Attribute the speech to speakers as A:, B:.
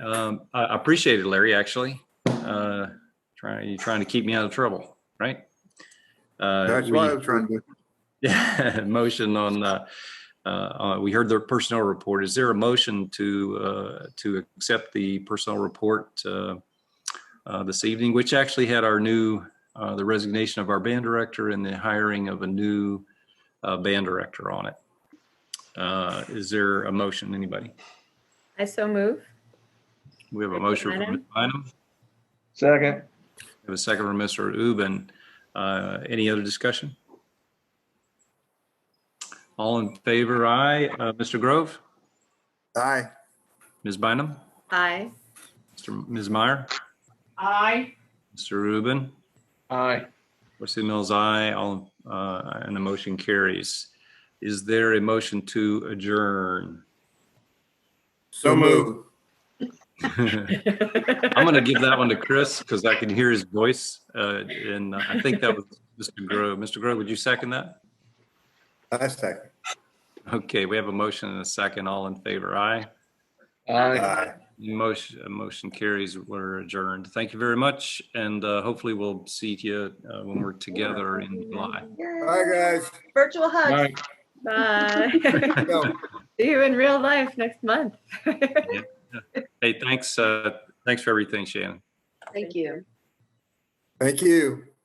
A: Um, I I appreciate it, Larry, actually. Uh, Trying, you're trying to keep me out of trouble, right? Uh,
B: That's
A: we-
B: what I was trying to,
A: Yeah, motion on, uh, uh, uh, we heard the personnel report. Is there a motion to, uh, to accept the personnel report uh, uh, this evening, which actually had our new, uh, the resignation of our band director and the hiring of a new uh, band director on it? Uh, Is there a motion, anybody?
C: I so move.
A: We have a motion from Ms. Bynum.
D: Second.
A: We have a second from Mr. Uben. Uh, Any other discussion? All in favor, aye. Uh, Mr. Grove?
B: aye,
A: Ms. Bynum?
C: Aye.
A: Mr. Ms. Meyer?
E: Aye.
A: Mr. Rubin?
D: Aye.
A: Wesley Mills, aye. All, uh, and the motion carries. Is there a motion to adjourn?
B: so move.
A: I'm going to give that one to Chris because I can hear his voice. uh, And I think that was Mr. Grove. Mr. Grove, would you second that?
B: I second.
A: Okay, we have a motion and a second. All in favor, aye.
D: Aye.
B: Aye.
A: Motion, uh, motion carries. We're adjourned. Thank you very much. And uh, hopefully we'll see you uh, when we're together in July.
B: Bye, guys.
F: Virtual hugs.
D: Aye.
C: Bye.
B: Go.
C: See you in real life next month.
A: Hey, thanks, uh, thanks for everything, Shannon.
F: Thank you.
B: Thank you.